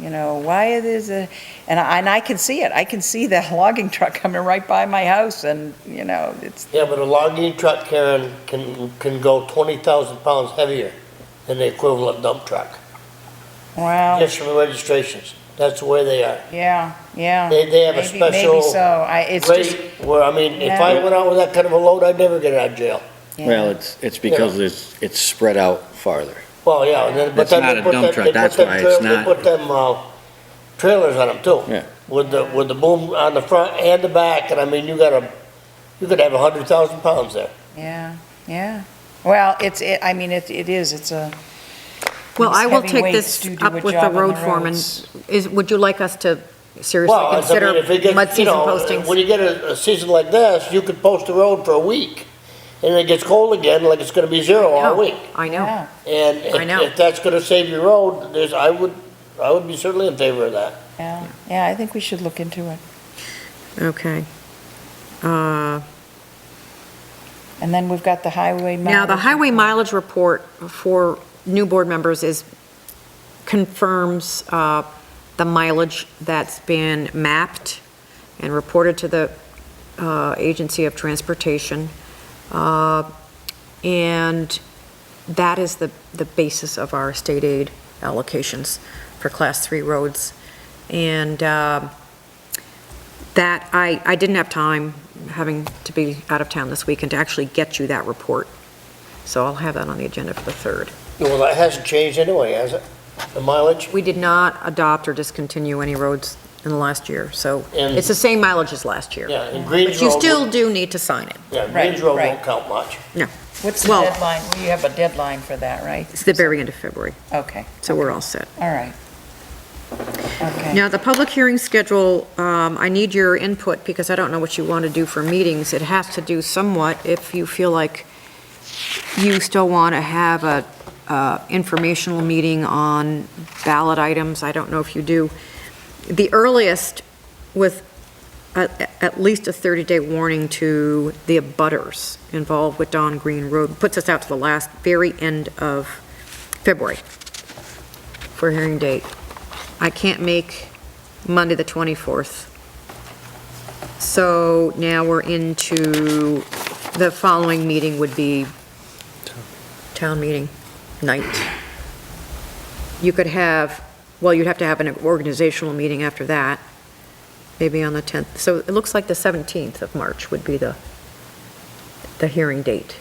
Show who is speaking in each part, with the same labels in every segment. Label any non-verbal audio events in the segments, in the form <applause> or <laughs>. Speaker 1: you know, why it is a, and I, and I can see it, I can see that <laughs> logging truck coming right by my house and, you know, it's,
Speaker 2: Yeah, but a logging truck, Karen, can, can go twenty thousand pounds heavier than the equivalent dump truck,
Speaker 1: wow,
Speaker 2: just from the registrations. That's the way they are.
Speaker 1: yeah, yeah.
Speaker 2: They- they have a
Speaker 1: Oh. Maybe- Maybe
Speaker 2: special
Speaker 1: so, I, it's just,
Speaker 2: Rate, where, I mean, if
Speaker 1: Yeah.
Speaker 2: I went out with that kind of a load, I'd never get out of jail.
Speaker 3: Well,
Speaker 1: yeah,
Speaker 3: it's, it's because it's, it's spread out farther.
Speaker 2: Well, yeah, and then, but
Speaker 3: That's
Speaker 2: then
Speaker 3: not
Speaker 2: they
Speaker 3: a
Speaker 2: put
Speaker 3: dump
Speaker 2: them,
Speaker 3: truck,
Speaker 2: they put
Speaker 3: that's why
Speaker 2: them,
Speaker 3: it's
Speaker 2: trail- they
Speaker 3: not.
Speaker 2: put them, uh, trailers on them too.
Speaker 3: Yeah.
Speaker 2: With the, with the boom on the front and the back, and I mean, you gotta, you could have a hundred thousand pounds there.
Speaker 1: yeah, yeah. Well, it's, it, I mean, it, it is, it's a.
Speaker 4: Well,
Speaker 1: these
Speaker 4: I will
Speaker 1: heavy
Speaker 4: take
Speaker 1: weights
Speaker 4: this
Speaker 1: do do
Speaker 4: up
Speaker 1: a
Speaker 4: with
Speaker 1: job
Speaker 4: the
Speaker 1: on
Speaker 4: road foreman.
Speaker 1: roads.
Speaker 4: Is, would you like us to seriously
Speaker 2: Well, I mean,
Speaker 4: consider
Speaker 2: if it gets-
Speaker 4: mud
Speaker 2: you
Speaker 4: season
Speaker 2: know, When
Speaker 4: postings?
Speaker 2: you get a, a season like this, you could post the road for a week, and it gets cold again, like it's gonna be zero all
Speaker 4: No,
Speaker 2: week.
Speaker 4: Oh, I know.
Speaker 1: Yeah,
Speaker 2: And
Speaker 4: I know.
Speaker 2: if, if that's gonna save your road, there's, I would, I would be certainly in favor of that.
Speaker 1: yeah, yeah, I think we should look into it.
Speaker 4: Okay. Uh,
Speaker 1: And then we've got the highway.
Speaker 4: Now, the
Speaker 1: mileage.
Speaker 4: highway mileage report for new board members is, confirms uh, the mileage that's been mapped and reported to the uh, Agency of Transportation. Uh, And that is the, the basis of our state aid allocations for Class 3 roads. And um, that, I, I didn't have time, having to be out of town this weekend, to actually get you that report. So I'll have that on the agenda for the 3rd.
Speaker 2: Well, that hasn't changed anyway, has it? The mileage?
Speaker 4: We did not adopt or discontinue any roads in the last year, so
Speaker 2: And-
Speaker 4: it's the same mileage as last year.
Speaker 2: Yeah, and Greens
Speaker 4: But you
Speaker 2: Road,
Speaker 4: still
Speaker 2: won't-
Speaker 4: do need to sign it.
Speaker 2: yeah,
Speaker 1: Right,
Speaker 2: Greens Road
Speaker 1: right.
Speaker 2: won't count much.
Speaker 1: What's the
Speaker 4: well-
Speaker 1: deadline? We have a deadline for that, right?
Speaker 4: It's the very end of February,
Speaker 1: Okay,
Speaker 4: so we're all set.
Speaker 1: all right. Okay,
Speaker 4: Now, the public hearing schedule, um, I need your input because I don't know what you want to do for meetings. It has to do somewhat if you feel like you still want to have a uh, informational meeting on ballot items. I don't know if you do. The earliest with a- at least a 30-day warning to the abutters involved with Don Green Road puts us out to the last, very end of February for hearing date. I can't make Monday, the 24th. So now we're into, the following meeting would be town meeting night. You could have, well, you'd have to have an organizational meeting after that, maybe on the 10th. So it looks like the 17th of March would be the, the hearing date.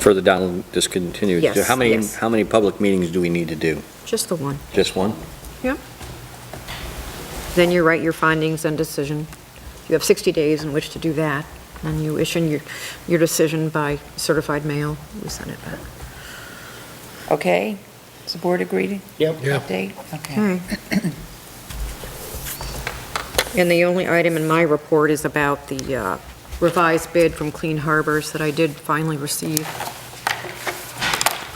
Speaker 3: Further down, discontinued. So
Speaker 4: Yes,
Speaker 3: How many,
Speaker 4: yes.
Speaker 3: how many public meetings do we need to do?
Speaker 4: Just the one.
Speaker 3: Just one?
Speaker 4: Then you write your findings and decision. You have 60 days in which to do that, and you issue your, your decision by certified mail. We send it back.
Speaker 1: okay. Is the board agreed?
Speaker 2: Yep.
Speaker 1: Update? Hmm. Okay.
Speaker 4: Okay. And the only item in my report is about the uh, revised bid from Clean Harbors that I did finally receive.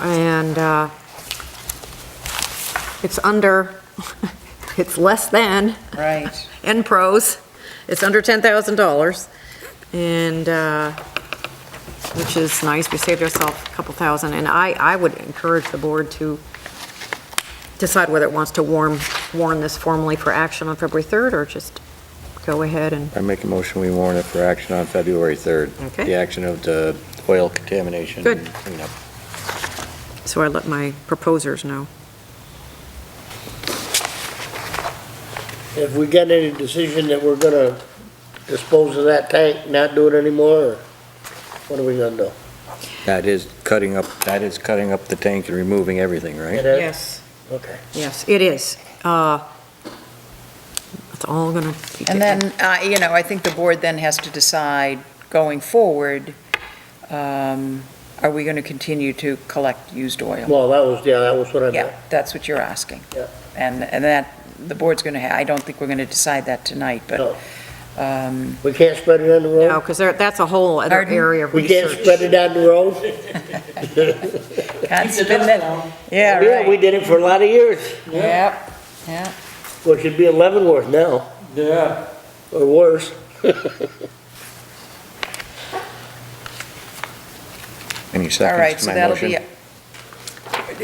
Speaker 4: And uh, it's under, <laughs> it's less than
Speaker 1: Right.
Speaker 4: and pros. It's under $10,000, and, uh, which is nice, we saved ourselves a couple thousand, and I, I would encourage the board to decide whether it wants to warn, warn this formally for action on February 3rd, or just go ahead and,
Speaker 3: I make a motion, we warn it for action on February 3rd.
Speaker 4: Okay.
Speaker 3: The action of the oil contamination.
Speaker 4: Good.
Speaker 3: cleanup.
Speaker 4: so I let my proposers know.
Speaker 2: If we get any decision that we're gonna dispose of that tank, not do it anymore, or what are we gonna do?
Speaker 3: That is cutting up, that is cutting up the tank and removing everything,
Speaker 2: It
Speaker 3: right?
Speaker 2: is?
Speaker 4: Yes.
Speaker 2: Okay.
Speaker 4: Yes, it is. Uh, It's all gonna be.
Speaker 1: And then, uh, you know, I think the board then has to decide, going forward, um, are we going to continue to collect used oil?
Speaker 2: Well, that was, yeah, that was what I meant.
Speaker 1: Yeah, that's what you're asking.
Speaker 2: Yeah.
Speaker 1: And, and that, the board's going to, I don't think we're going to decide that tonight, but,
Speaker 2: No.
Speaker 1: um,
Speaker 2: We can't spread it on the
Speaker 4: No,
Speaker 2: road?
Speaker 4: because that's a whole other
Speaker 1: Pardon?
Speaker 4: area of
Speaker 2: We can't
Speaker 4: research.
Speaker 2: spread it on the road?
Speaker 1: God's been that- Yeah,
Speaker 2: Yeah, we
Speaker 1: right.
Speaker 2: did it for a lot of years.
Speaker 1: Yep, yep.
Speaker 2: Well, it should be in Leavenworth now,
Speaker 5: Yeah,
Speaker 2: or worse.
Speaker 3: Any
Speaker 1: All right,
Speaker 3: seconds to
Speaker 1: so
Speaker 3: my
Speaker 1: that'll be
Speaker 3: motion?